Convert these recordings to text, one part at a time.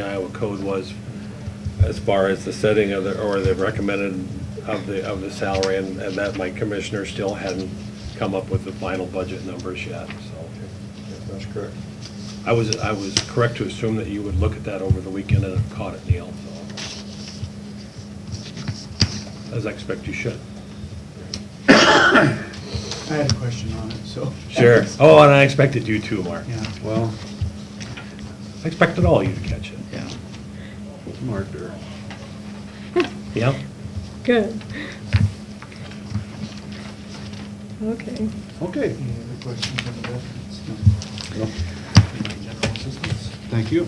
Iowa code was as far as the setting of the, or the recommended of the, of the salary, and, and that my commissioner still hadn't come up with the final budget numbers yet, so. That's correct. I was, I was correct to assume that you would look at that over the weekend and have caught it, Neil, so. As I expect you should. I had a question on it, so. Oh, and I expected you too, Mark. Yeah, Well, I expected all of you to catch it. yeah. Mark, there, Yeah? Good. Okay. okay, Any other questions on the veterans? No. Well, General assistance? thank you.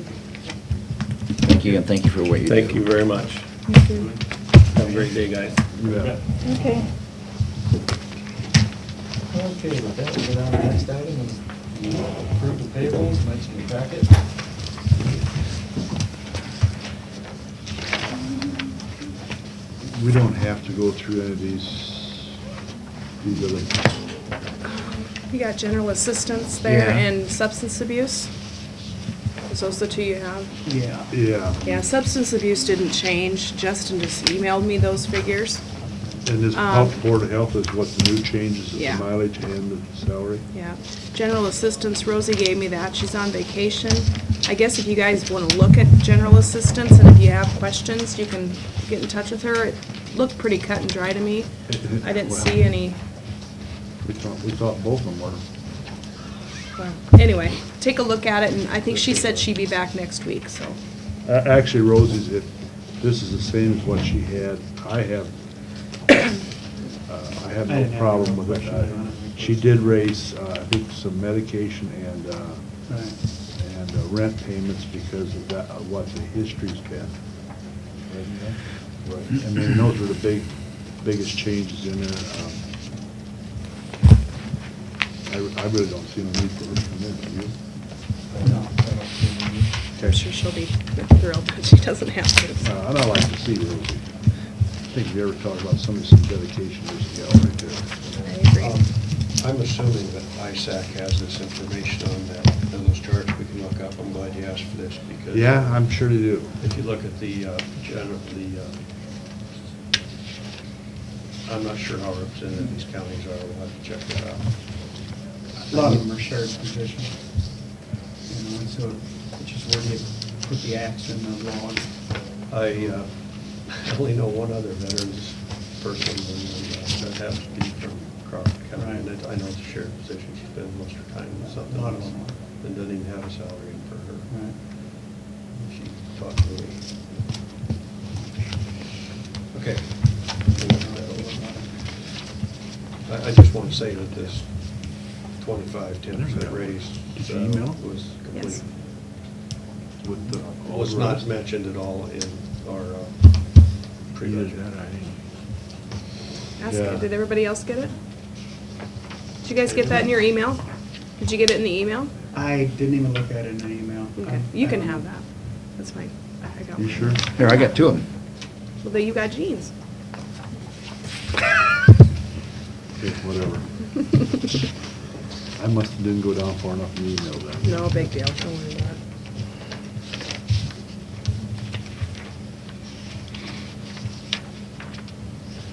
Thank you, and thank you for what you do. Thank you very much. Thank you. Have a great day, guys. You bet. Okay. Okay, with that, we'll go down to the next item and approve the payables, mention the packet. We don't have to go through any of these, these other, You got general assistance there Yeah. and substance abuse? Is those the two you have? Yeah. yeah. Yeah, substance abuse didn't change. Justin just emailed me those figures. And this Um, health, Board of Health is what the new changes, is the Yeah. mileage and the salary. Yeah. General assistance, Rosie gave me that. She's on vacation. I guess if you guys want to look at general assistance and if you have questions, you can get in touch with her. It looked pretty cut and dry to me. I didn't Well, see any, We thought, we thought both of them were. well, anyway, take a look at it and I think she said she'd be back next week, so. A- Actually, Rosie's, it, this is the same as what she had. I have, uh, I have I didn't no have problem no with it. question on it. I- She did raise, uh, I think, some medication and, uh, Right. and uh, rent payments because of that, of what the history's been. Right. I mean, those were the big, biggest changes in there. Um, I, re- I really don't see any need for it. do you? No, I don't see any. Okay. I'm sure she'll be thrilled that she doesn't have to. so. Uh, And I like to see Rosie. I think if you ever talk about somebody, some dedication, there's a gal right there. I agree. Um, I'm assuming that ISAC has this information on that, on those charts we can look up. I'm glad you asked for this because. Yeah, I'm sure they do. If you look at the, uh, general, the, uh, I'm not sure how representative these counties are. We'll have to check that out. A lot of them are shared positions. You know, and so it's just where do you put the axe in the log? I uh, only know one other veterans person, and uh, that happens to be from Crawford County. And it- I know it's a shared position. She's been most of her time in something A lot of else them are. and doesn't even have a salary for her. Right. She talked to me. Okay. I, I just want to say that this twenty-five, ten percent raise Did you uh, email? was complete. Yes. With the. all Was the Oh, not rest. mentioned at all in our uh, Either pre-budget. that, or I didn't. Ask, Yeah. did everybody else get it? Did you guys get that in your email? Did you get it in the email? I didn't even look at it in the email. Okay, you can have that. That's fine. I I got You one. sure? Here, I got two of them. Well, then you got jeans. Okay, whatever. I must have didn't go down far enough in the email then. No, big deal. Don't worry about it.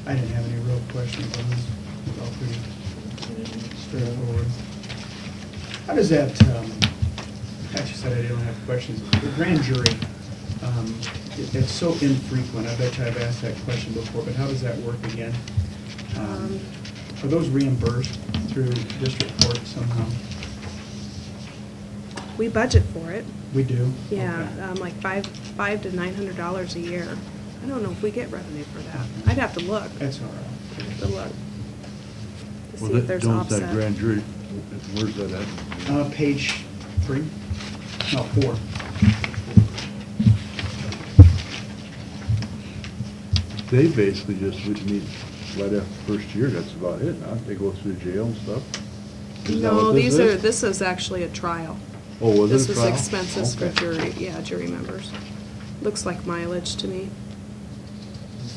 I didn't have any real questions on this. It's all pretty straightforward. How does that, um, actually said I don't have questions. The grand jury, um, it- it's so infrequent. I bet you I've asked that question before, but how does that work again? Um, Are those reimbursed through district court somehow? We budget for it. We do? Yeah, Okay. um, like five, five to nine hundred dollars a year. I don't know if we get revenue for that. I'd have to look. I'd That's all right. have to look. To Well, see if that- there's don't that offset. grand jury, where's that at? Uh, page three? No, four. They basically just, we need, right after first year, that's about it, huh? They go through jail and stuff? Is that what No, this these are, is? this is actually a trial. Oh, was it This a was trial? expenses for Okay. jury, yeah, jury members. Looks like mileage to me.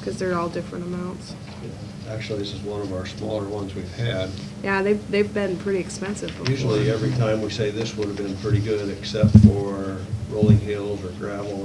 Because they're all different amounts. Actually, this is one of our smaller ones we've had. Yeah, they've, they've been pretty expensive before. Usually, every time we say this would have been pretty good, except for rolling hills or gravel